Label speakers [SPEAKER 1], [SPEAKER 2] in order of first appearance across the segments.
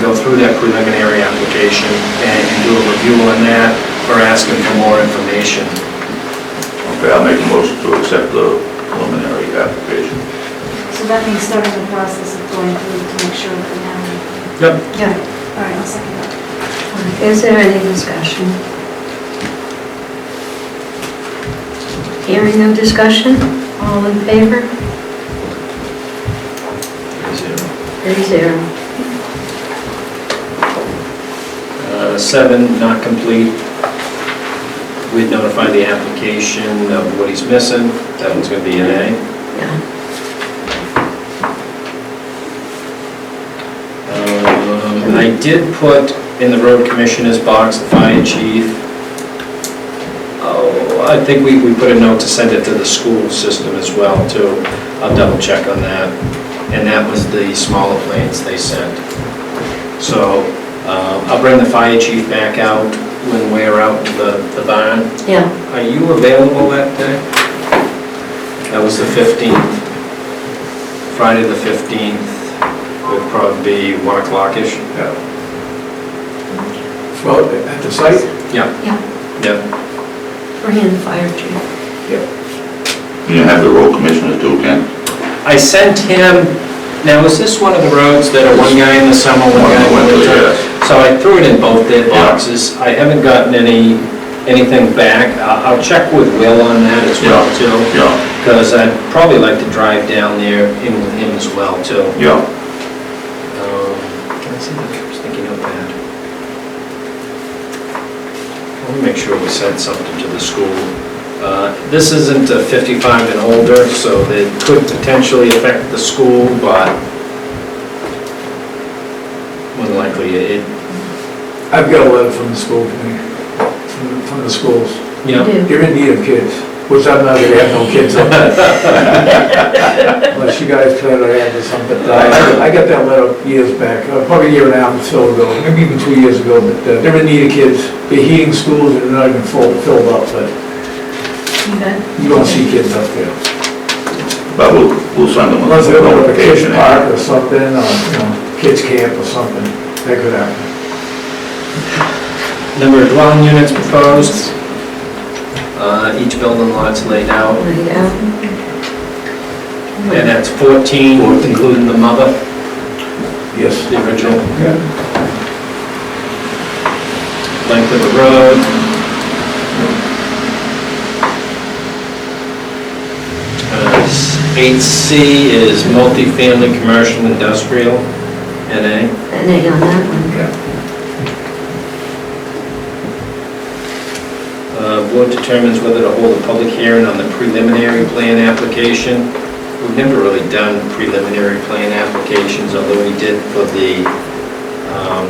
[SPEAKER 1] go through that preliminary application and and do a review on that, or ask them for more information.
[SPEAKER 2] Okay, I'll make a motion to accept the preliminary application.
[SPEAKER 3] So that means starting the process of going through to make sure that we have,
[SPEAKER 1] Yep.
[SPEAKER 4] Yeah.
[SPEAKER 3] all right, I'll second that.
[SPEAKER 4] Is there any discussion? Hearing no discussion? All in favor? Three zero.
[SPEAKER 1] Uh, Seven, not complete. We'd notify the application of what he's missing. That one's going to be an A.
[SPEAKER 4] Yeah.
[SPEAKER 1] Um, I did put in the road commissioner's box, the fire chief. Oh, I think we, we put a note to send it to the school system as well, too. I'll double check on that. And that was the smaller plans they sent. So uh, I'll bring the fire chief back out when we're out to the the barn.
[SPEAKER 4] Yeah.
[SPEAKER 1] Are you available that day? That was the 15th. Friday, the 15th, would probably be 1 o'clock-ish.
[SPEAKER 2] Yeah.
[SPEAKER 5] Well, at the site,
[SPEAKER 1] Yeah,
[SPEAKER 4] Yeah.
[SPEAKER 1] yeah.
[SPEAKER 4] Bring in the fire chief.
[SPEAKER 2] You have the road commissioner too, Ken?
[SPEAKER 1] I sent him, now is this one of the roads that are one guy in the summer, one
[SPEAKER 2] One in
[SPEAKER 1] guy
[SPEAKER 2] the
[SPEAKER 1] in the
[SPEAKER 2] winter,
[SPEAKER 1] winter?
[SPEAKER 2] yes.
[SPEAKER 1] So I threw it in both their
[SPEAKER 2] Yeah.
[SPEAKER 1] boxes. I haven't gotten any, anything back. I- I'll check with Will on that as well, too,
[SPEAKER 2] Yeah,
[SPEAKER 1] because I'd probably like to drive down there in with him as well, too.
[SPEAKER 2] yeah.
[SPEAKER 1] Um, Can I see the sticky notepad? Let me make sure we sent something to the school. Uh, This isn't a 55 and older, so it could potentially affect the school, but more than likely, it,
[SPEAKER 5] I've got a letter from the school committee, from- from the schools.
[SPEAKER 1] you
[SPEAKER 4] You
[SPEAKER 1] know,
[SPEAKER 4] do.
[SPEAKER 5] You're in need of kids, which I'm not, they have no kids up there. Unless you guys try to add to something. But I I got that letter years back, uh, probably a year and a half or so ago, maybe even two years ago, but uh, they're in need of kids. They're heating schools and they're not even full- filled up, but
[SPEAKER 4] You bet.
[SPEAKER 5] you don't see kids up there.
[SPEAKER 2] But we'll, we'll send them a
[SPEAKER 5] Unless they're going to a kids
[SPEAKER 2] notification.
[SPEAKER 5] park or something, or, you know, kids camp or something, that could happen.
[SPEAKER 1] number of dwelling units proposed, uh, each building lot's laid out,
[SPEAKER 4] Laid out.
[SPEAKER 1] and that's 14, including the mother,
[SPEAKER 5] Yes.
[SPEAKER 1] the original.
[SPEAKER 5] Yeah.
[SPEAKER 1] length of the road. Uh, Eight C is multifamily, commercial, industrial, NA.
[SPEAKER 4] An A on that one.
[SPEAKER 1] Uh, Board determines whether to hold a public hearing on the preliminary plan application. We've never really done preliminary plan applications, although we did for the um,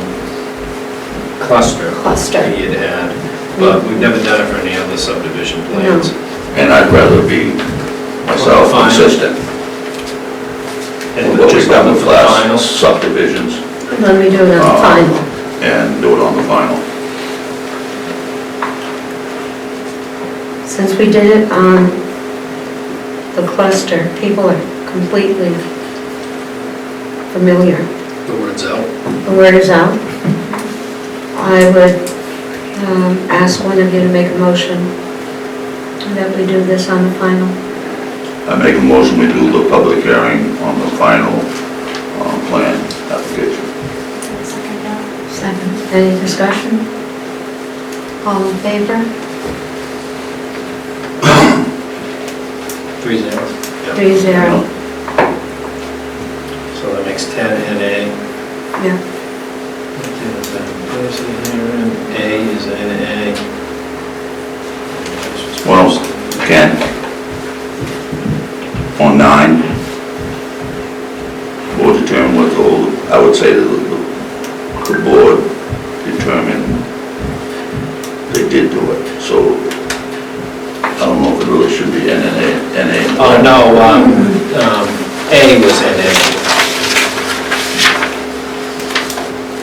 [SPEAKER 1] cluster.
[SPEAKER 4] Cluster.
[SPEAKER 1] We had had, but we've never done it for any other subdivision plans.
[SPEAKER 2] And I'd rather be myself
[SPEAKER 1] Fine.
[SPEAKER 2] consistent.
[SPEAKER 1] And
[SPEAKER 2] What we've
[SPEAKER 1] just
[SPEAKER 2] done
[SPEAKER 1] looking
[SPEAKER 2] with
[SPEAKER 1] for the
[SPEAKER 2] last
[SPEAKER 1] files.
[SPEAKER 2] subdivisions
[SPEAKER 4] Let me do it on the
[SPEAKER 2] Oh.
[SPEAKER 4] final.
[SPEAKER 2] and do it on the final.
[SPEAKER 4] Since we did it on the cluster, people are completely familiar.
[SPEAKER 1] The word's out.
[SPEAKER 4] The word is out. I would um, ask one of you to make a motion that we do this on the final.
[SPEAKER 2] I make a motion, we do the public hearing on the final uh, plan application.
[SPEAKER 3] I'll second that.
[SPEAKER 4] Second. Any discussion? All in favor?
[SPEAKER 1] Three zero.
[SPEAKER 4] Three zero.
[SPEAKER 1] So that makes 10 and A.
[SPEAKER 4] Yeah.
[SPEAKER 1] A is N A.
[SPEAKER 2] What else? Ken? On nine, board determine what the, whole- I would say that the, the board determined they did do it, so I don't know if it really should be NNA, NA.
[SPEAKER 1] Oh, no, um, um, A was N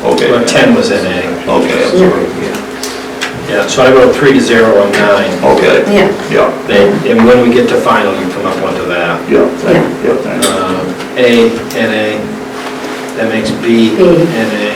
[SPEAKER 1] A,
[SPEAKER 2] Okay.
[SPEAKER 1] or 10 was N A.
[SPEAKER 2] Okay, I'm sorry.
[SPEAKER 1] Yeah, so I wrote three to zero on nine.
[SPEAKER 2] Okay,
[SPEAKER 4] Yeah.
[SPEAKER 2] yeah,
[SPEAKER 1] Then- And when we get to final, you come up onto that.
[SPEAKER 2] yeah,
[SPEAKER 1] Uh,
[SPEAKER 2] thank, yeah, thank you.
[SPEAKER 1] Um, A, N A, that makes B,
[SPEAKER 4] B.
[SPEAKER 1] N A.